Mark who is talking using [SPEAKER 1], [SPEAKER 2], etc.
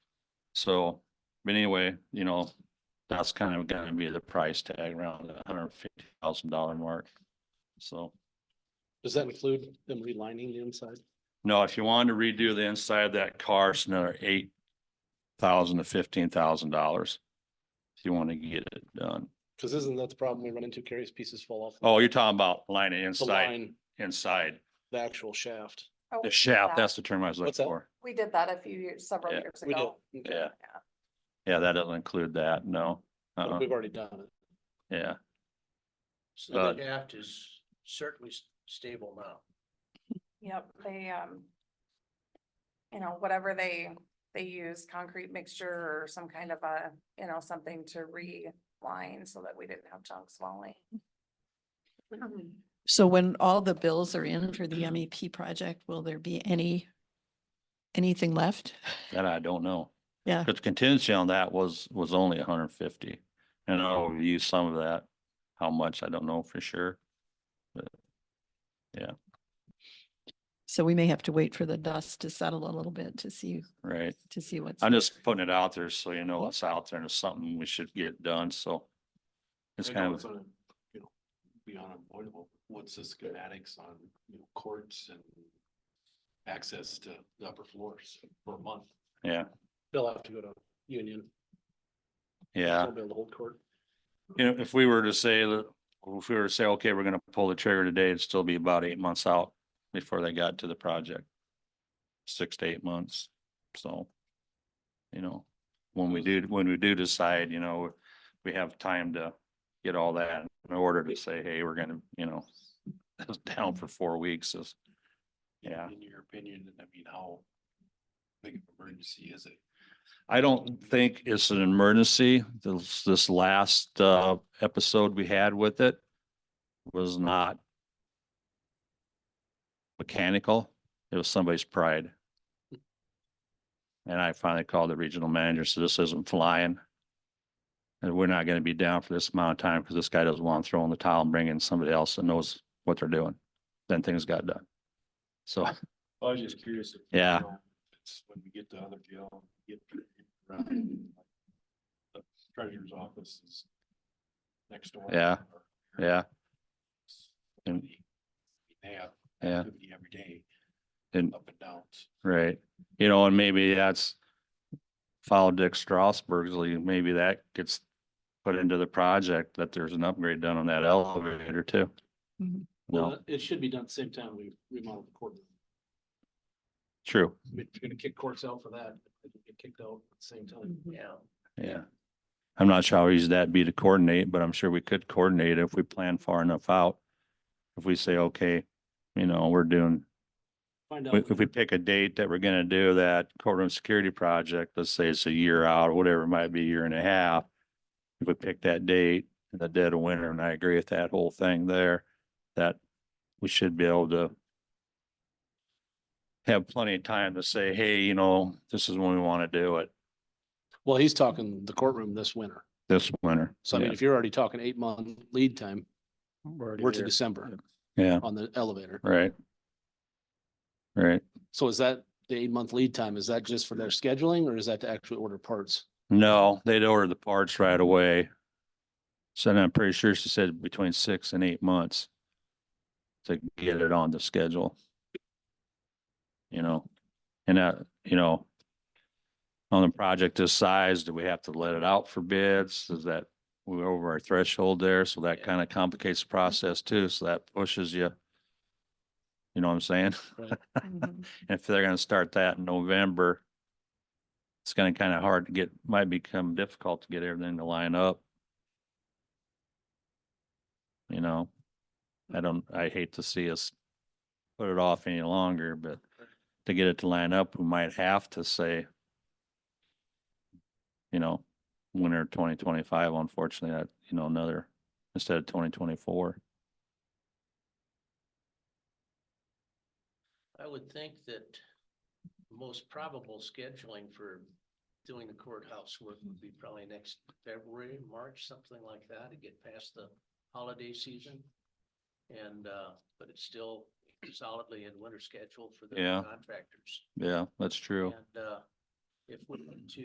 [SPEAKER 1] So, but anyway, you know, that's kind of gonna be the price tag around the hundred fifty thousand dollar mark. So,
[SPEAKER 2] Does that include them relining the inside?
[SPEAKER 1] no, if you wanted to redo the inside of that car, it's another eight thousand to fifteen thousand dollars. If you want to get it done.
[SPEAKER 2] Cause isn't that the problem we run into? Carries pieces fall off.
[SPEAKER 1] Oh, you're talking about line of
[SPEAKER 2] The
[SPEAKER 1] inside,
[SPEAKER 2] line,
[SPEAKER 1] inside,
[SPEAKER 2] the actual shaft.
[SPEAKER 3] Oh,
[SPEAKER 1] the
[SPEAKER 3] we did
[SPEAKER 1] shaft,
[SPEAKER 3] that.
[SPEAKER 1] that's the term I was
[SPEAKER 2] What's
[SPEAKER 1] looking
[SPEAKER 2] that?
[SPEAKER 1] for.
[SPEAKER 3] We did that a few years, several
[SPEAKER 1] Yeah,
[SPEAKER 3] years
[SPEAKER 2] We did.
[SPEAKER 3] ago.
[SPEAKER 2] okay.
[SPEAKER 1] Yeah. Yeah, that doesn't include that, no.
[SPEAKER 2] But
[SPEAKER 1] Uh-uh,
[SPEAKER 2] We've already done it.
[SPEAKER 1] yeah. uh,
[SPEAKER 4] So the aft is certainly s- stable now.
[SPEAKER 3] Yep, they, um. You know, whatever they, they use, concrete mixture or some kind of a, you know, something to reline so that we didn't have chunks falling.
[SPEAKER 5] So when all the bills are in for the MEP project, will there be any, anything left?
[SPEAKER 1] That I don't know.
[SPEAKER 5] Yeah.
[SPEAKER 1] But the contingency on that was, was only hundred and fifty. And I'll use some of that. How much, I don't know for sure.
[SPEAKER 5] So we may have to wait for the dust to settle a little bit to see,
[SPEAKER 1] Right.
[SPEAKER 5] to see what's.
[SPEAKER 1] I'm just putting it out there so you know what's out there and it's something we should get done. So it's
[SPEAKER 2] I know
[SPEAKER 1] kind of,
[SPEAKER 2] gonna, you know, Be unavoidable. What's the schematics on, you know, courts and access to the upper floors for a month?
[SPEAKER 1] Yeah.
[SPEAKER 2] They'll have to go to union.
[SPEAKER 1] yeah.
[SPEAKER 2] They'll be able to hold court.
[SPEAKER 1] You know, if we were to say that, if we were to say, okay, we're gonna pull the trigger today, it'd still be about eight months out before they got to the project. Six to eight months, so. You know, when we do, when we do decide, you know, we have time to get all that in order to say, hey, we're gonna, you know. It's down for four weeks is, yeah.
[SPEAKER 2] In your opinion, I mean, how big of an emergency is it?
[SPEAKER 1] I don't think it's an emergency. This, this last, uh, episode we had with it was not mechanical. It was somebody's pride. And I finally called the regional manager, so this isn't flying. And we're not gonna be down for this amount of time because this guy doesn't want to throw in the towel and bring in somebody else that knows what they're doing. Then things got done. So,
[SPEAKER 2] I was just curious. if, you
[SPEAKER 1] Yeah.
[SPEAKER 2] know, It's when we get to other jail, get. around, like, the Treasurer's office is next door.
[SPEAKER 1] Yeah,
[SPEAKER 2] or-
[SPEAKER 1] yeah, and-
[SPEAKER 2] They they have
[SPEAKER 1] yeah,
[SPEAKER 2] activity every day,
[SPEAKER 1] and
[SPEAKER 2] up and downs.
[SPEAKER 1] Right, you know, and maybe that's follow Dick Strasberg's lead, maybe that gets put into the project, that there's an upgrade done on that elevator too.
[SPEAKER 5] Mhm.
[SPEAKER 1] No,
[SPEAKER 2] it should be done at the same time we remodel the court.
[SPEAKER 1] true,
[SPEAKER 2] I mean, If you're gonna kick courts out for that, it can get kicked out at the same time. Yeah.
[SPEAKER 1] yeah. I'm not sure how easy that'd be to coordinate, but I'm sure we could coordinate if we plan far enough out. If we say, okay, you know, we're doing
[SPEAKER 2] Find out.
[SPEAKER 1] If if we pick a date that we're gonna do that courtroom security project, let's say it's a year out, or whatever, it might be a year and a half. If we pick that date in the dead of winter, and I agree with that whole thing there, that we should be able to have plenty of time to say, hey, you know, this is when we want to do it,
[SPEAKER 2] Well, he's talking the courtroom this winter.
[SPEAKER 1] this winter.
[SPEAKER 2] So I mean,
[SPEAKER 1] Yeah.
[SPEAKER 2] if you're already talking eight month lead time, we're to
[SPEAKER 4] there.
[SPEAKER 2] December
[SPEAKER 1] Yeah,
[SPEAKER 2] on the elevator.
[SPEAKER 1] right. Right.
[SPEAKER 2] So is that the eight month lead time? Is that just for their scheduling or is that to actually order parts?
[SPEAKER 1] No, they'd order the parts right away. So then I'm pretty sure she said between six and eight months to get it on the schedule. You know, and that, you know, on a project this size, do we have to let it out for bids? Is that we're over our threshold there? So that kind of complicates the process too. So that pushes you. You know what I'm saying?
[SPEAKER 5] Mhm.
[SPEAKER 1] if they're gonna start that in November, it's gonna kind of hard to get, might become difficult to get everything to line up. You know, I don't, I hate to see us put it off any longer, but to get it to line up, we might have to say, you know, winter twenty twenty-five, unfortunately, that, you know, another, instead of twenty twenty-four.
[SPEAKER 4] I would think that the most probable scheduling for doing the courthouse work would be probably next February, March, something like that, to get past the holiday season. And, uh, but it's still solidly in winter schedule for the
[SPEAKER 1] Yeah.
[SPEAKER 4] contractors.
[SPEAKER 1] Yeah, that's true.
[SPEAKER 4] And, uh, if we went to